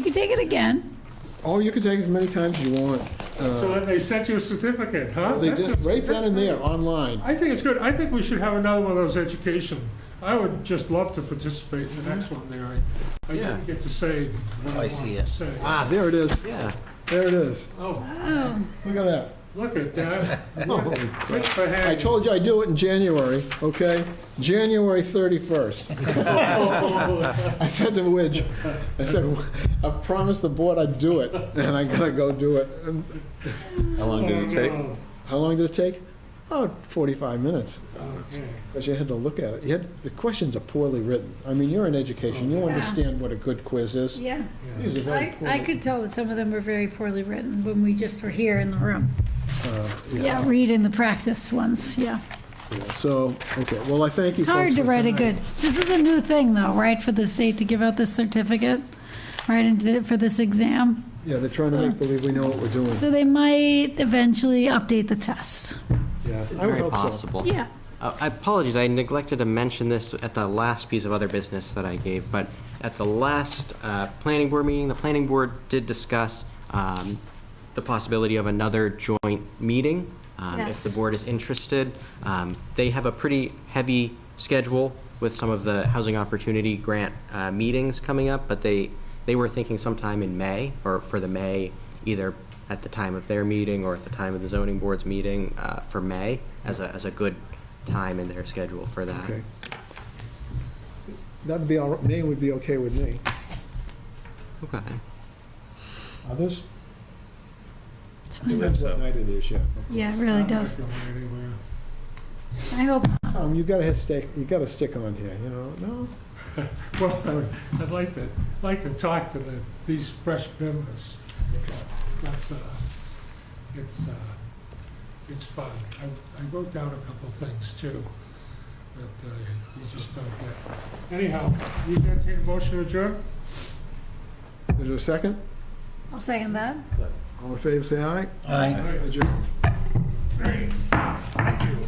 You can take it again. Oh, you can take it as many times as you want. So Uh, then they sent you a certificate, huh? They That's did, just- right then and there, online. I think it's good. I think we should have another one of those education. I would just love to participate in the next one there. I- I Yeah. Oh, didn't get to say what I I wanted see to it. say. Ah, there it is, Yeah. there it is. Oh, Look at that. look at that. Oh, Rich Bahag. I told you I'd do it in January, okay? January 31st. I said to Widge, I said, I promised the board I'd do it, and I gotta go do it. And How long did it take? Oh, How long did it take? Oh, 45 minutes. okay. Because you had to look at it. You had, the questions are poorly written. I mean, you're in education, you understand what a good quiz is. Yeah. These are very I, poorly. I could tell that some of them were very poorly written when we just were here in the room. uh, Yeah, reading the practice ones, yeah. yeah. So, okay, well, I thank you It's folks hard to for write a tonight. good, this is a new thing though, right, for the state to give out this certificate, right, and did it for this exam. Yeah, they're trying to make believe we know what we're doing. So they might eventually update the test. Yeah, I would Very hope so. possible. Yeah. Uh, I apologize, I neglected to mention this at the last piece of other business that I gave, but at the last uh, planning board meeting, the planning board did discuss um, the possibility of another joint meeting. um, If the Yes. board is interested, Um, they have a pretty heavy schedule with some of the Housing Opportunity Grant uh, meetings coming up, but they, they were thinking sometime in May, or for the May, either at the time of their meeting or at the time of the zoning board's meeting uh, for May, as a, as a good time in their schedule for that. Okay. That'd be all, right. May would be okay with me. Okay. Others? It's fine. Depends what night it is, yeah. Yeah, it really I'm not does. going anywhere. I hope, Um, you gotta hit stick, you gotta stick on here, you know, no? Well, I would- I'd like to, like to talk to the, these fresh members. That's, uh, it's, uh, it's fun. I, I wrote down a couple of things too, that uh, you just don't get. Anyhow, you can take a motion to adjourn? Is there a second? I'll second that. All in favor, say aye. All right. Adjourn. Great. Thank you.